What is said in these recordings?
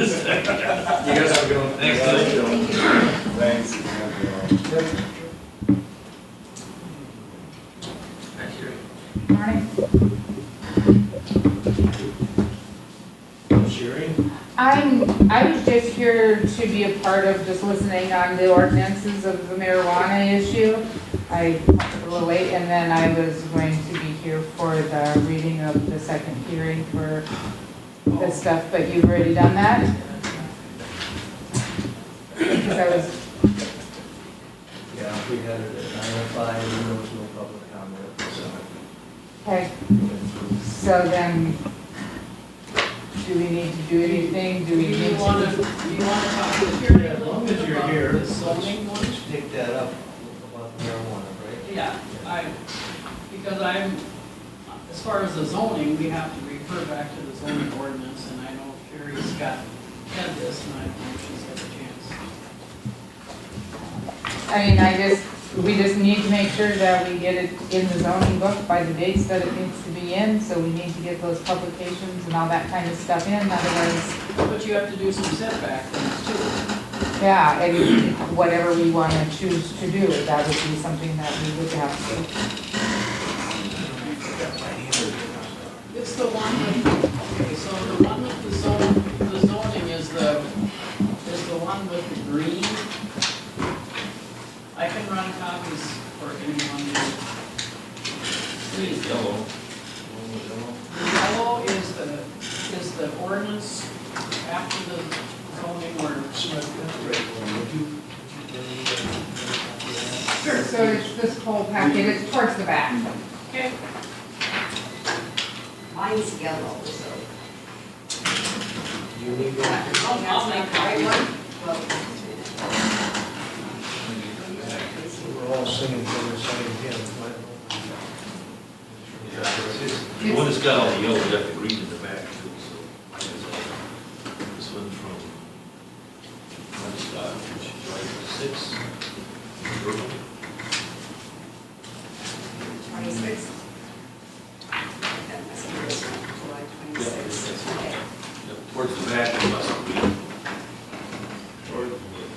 You guys have a good one. Thanks, Thanks. Thank you. Morning. Sherry? I'm, I was just here to be a part of just listening on the ordinances of the marijuana issue. I was a little late, and then I was going to be here for the reading of the second hearing for this stuff, but you've already done that? Because I was, Yeah, we had it at nine oh five, and there was no public comment, so. okay, so then, do we need to do anything? Do Do we you need want to? to, do you want to talk to Karen Yeah, a as little long bit as you're about here, the let's- zoning one? Pick that up about the marijuana, Yeah, I, because I'm, as far as the zoning, we have to refer back to the zoning ordinance, and I know Carrie's got, had this, and I don't know if she's had a chance. I mean, I just, we just need to make sure that we get it in the zoning book by the dates that it needs to be in, so we need to get those publications and all that kind of stuff in, otherwise, But you have to do some setback things too. yeah, and whatever we want to choose to do, that would be something that we would have It's the one with, okay, so the one with the zone, the zoning is the, is the one with the green. I can run copies for anyone who. Please, Yellow. The Yellow is the, is the ordinance after the zoning ordinance. right? to. So it's this whole packet, it's towards the back. Okay. Mine's yellow, so. You need Oh, that? that's I'll make not the right one? Well, We're all singing from the same hymn, right? The one that's got all the yellow, got the green in the back too, so. I guess I'll- This one's from, one's got July six. Twenty-six. That must be this one, July twenty-six. Yeah, Okay. Yep, Towards the back, it must be.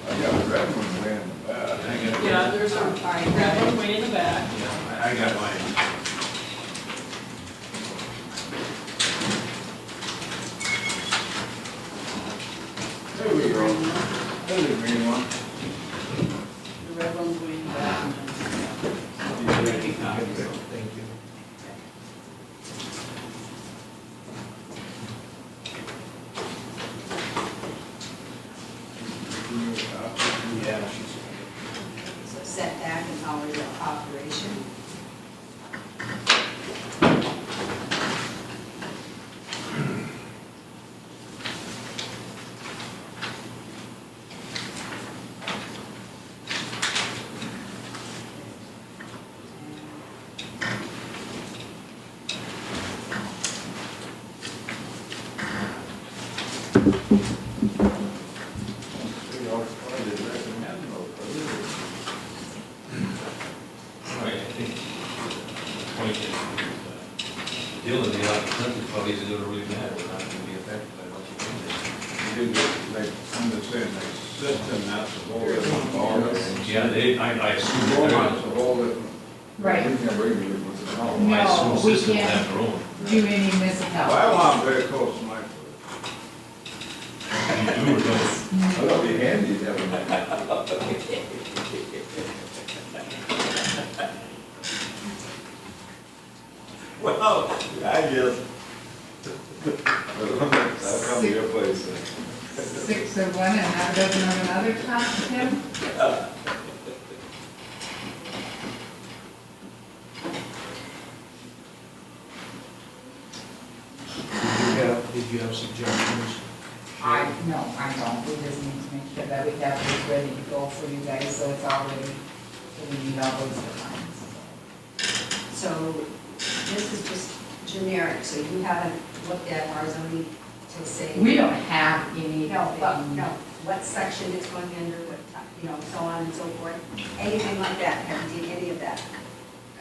I got a red one way in the I back. got- Yeah, there's a, that one way in the back. Yeah, I I got mine. There we go. There's a green one. The red one's way in the back. and then- Maybe copies. Thank you. Yeah. So setback and hours of operation. We always probably recommend those. Right, I think the point is, uh, Dylan, the applicant probably isn't gonna really matter, we're not gonna be affected by what you You did, like, I'm just saying, like, system, that's a whole different ball. do. Yeah, they, I, I assume Whole, they're that's a not, whole different. Right. You can regulate what's involved. I assume No, we systems can't. have their own. Do any Well, municipalities? I'm very close to my, I You do or don't. thought it'd be handy to have a Well, I guess. I'll come to your place. Six of one and half a dozen of another, Tom, Tim? Did you have, did you have suggestions? I, no, I don't, we just need to make sure that we have this ready to go for you guys, so it's all ready, so we need all those lines. So this is just generic, so you haven't looked at our zoning to say. We don't have anything. No, but, no, what section it's going under, what, time, you know, so on and so forth, anything like that, haven't done any of that.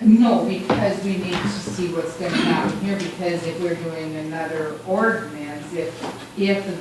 No, because we need to see what's gonna happen here, because if we're doing another ordinance, if, if